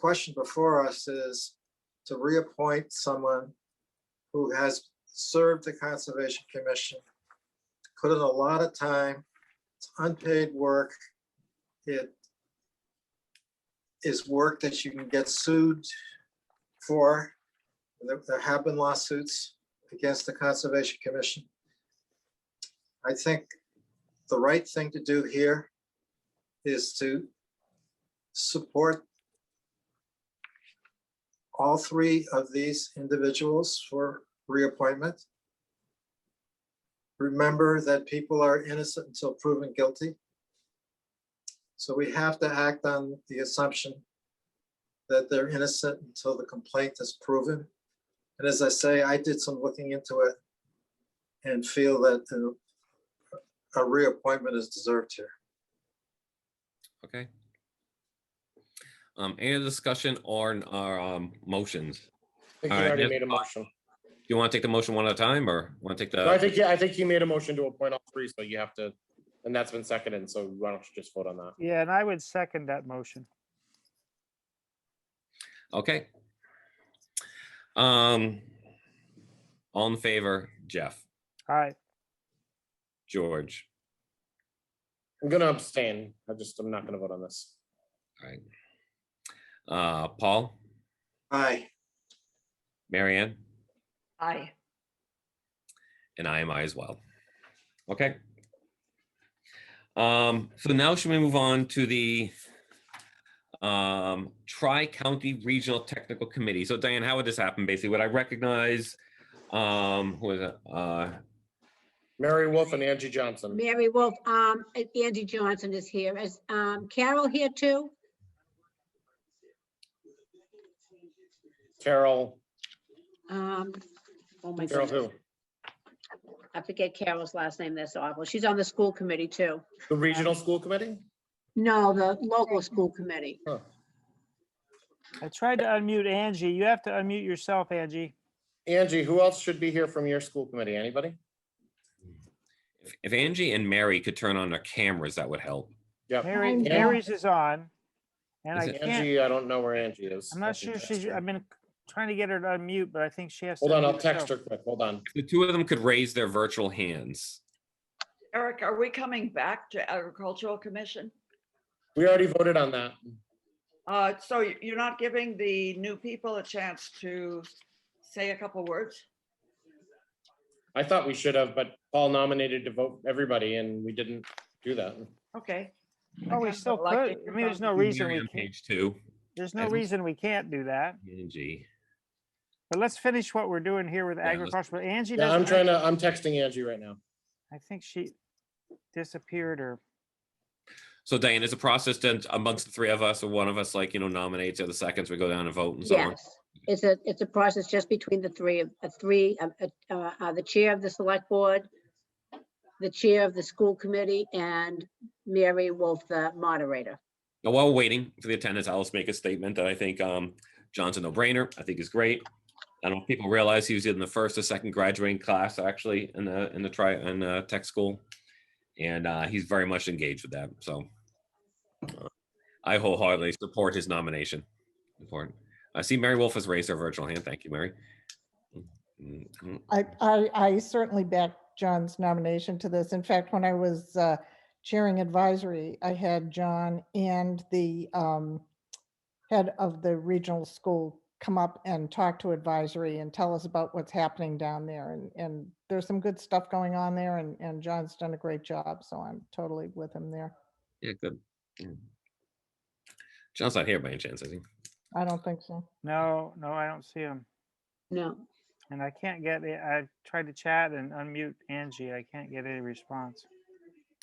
question before us is to reappoint someone who has served the Conservation Commission, put in a lot of time, it's unpaid work. It is work that you can get sued for. There there have been lawsuits against the Conservation Commission. I think the right thing to do here is to support all three of these individuals for reappointment. Remember that people are innocent until proven guilty. So we have to act on the assumption that they're innocent until the complaint is proven. And as I say, I did some looking into it and feel that uh, a reappointment is deserved here. Okay. Um, any other discussion or, n- or, um, motions? I think All you right, already yes. made a motion. Do you want to take the motion one at a time or want to take No, I the, think, yeah, I think he made a motion to appoint all three, so you have to, and that's been seconded, so why don't you just vote on that? Yeah, and I would second that motion. okay? Um, all in favor, Jeff, Aye. George, I'm gonna abstain. I just, I'm not gonna vote on this. all right. Uh, Paul, Aye. Marianne, Aye. and I am I as well. Okay. Um, so now should we move on to the um, Tri-County Regional Technical Committee? So Diane, how would this happen? Basically, would I recognize um, who is it? Uh, Mary Wolf and Angie Johnson. Mary Wolf, um, and Andy Johnson is here. Is, um, Carol here too? Carol, Um, oh my Carol who? goodness, I forget Carol's last name. That's awful. She's on the school committee too. The Regional School Committee? No, the local school committee. Huh. I tried to unmute Angie. You have to unmute yourself, Angie. Angie, who else should be here from your school committee? Anybody? if- if Angie and Mary could turn on their cameras, that would help. Yep. Mary, Yeah. Mary's is on. And Is I it can't, Angie, I don't know where Angie is. I'm not I can sure text she's, her. I've been trying to get her to unmute, but I think she has. to Hold on, I'll unmute text her quick. Hold on. If the two of them could raise their virtual hands. Eric, are we coming back to agricultural commission? We already voted on that. Uh, so y- you're not giving the new people a chance to say a couple words? I thought we should have, but Paul nominated to vote everybody and we didn't do that. Okay. Oh, we still I'd like to could. I mean, there's no reason Mary we on can't, page two, there's no Evan? reason we can't do that. Angie. But let's finish what we're doing here with Yeah, let's- agriculture. But Angie Yeah, I'm doesn't, trying have- to, I'm texting Angie right now. I think she disappeared or, So Diane, is a process then amongst the three of us, or one of us like, you know, nominates, the other seconds, we go down and vote and so on? Yes, it's a, it's a process just between the three, of- uh, three, uh, uh, uh, uh, the chair of the select board, the chair of the school committee and Mary Wolf, the moderator. Now, while we're waiting for the attendance, I'll just make a statement that I think um, John's a no-brainer. I think is great. I don't know if people realize he was in the first or second graduating class actually in the in the try in uh, tech school, and uh, he's very much engaged with that. So uh, I wholeheartedly support his nomination. Important. I see Mary Wolf has raised her virtual hand. Thank you, Mary. Mm, mm, I, I, I certainly back John's nomination to this. In fact, when I was uh, chairing advisory, I had John and the um, head of the regional school come up and talk to advisory and tell us about what's happening down there. And, and there's some good stuff going on there and, and John's done a great job. So I'm totally with him there. Yeah, good. Mm. John's not here by any chance, I think. I don't think so. no, no, I don't see him. No, And I can't get, it. I tried to chat and unmute Angie. I can't get any response.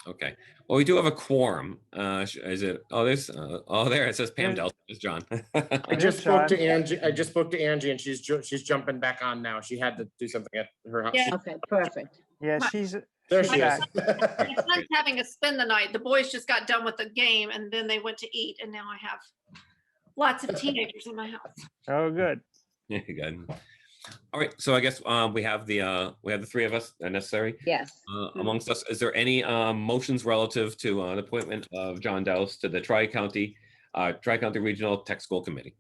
Okay. Well, we do have a quorum. Uh, sh- is it? Oh, there's. Uh, oh, there it says Pam There's- Delson. It's John. I Good just spoke to job. Angie, I just spoke to Angie and she's, ju- she's jumping back on now. She had to do something at her house. Yeah. okay, perfect. Yeah, My- she's, There she's she is. back. My son's having a spend the night. The boys just got done with the game and then they went to eat and now I have lots of teenagers in my house. oh, good. Yeah, good. All right. So I guess um, we have the uh, we have the three of us uh, necessary Yes. uh, amongst us. Is there any um, motions relative to uh, the appointment of John Dowse to the Tri County uh, Tri County Regional Tech School Committee?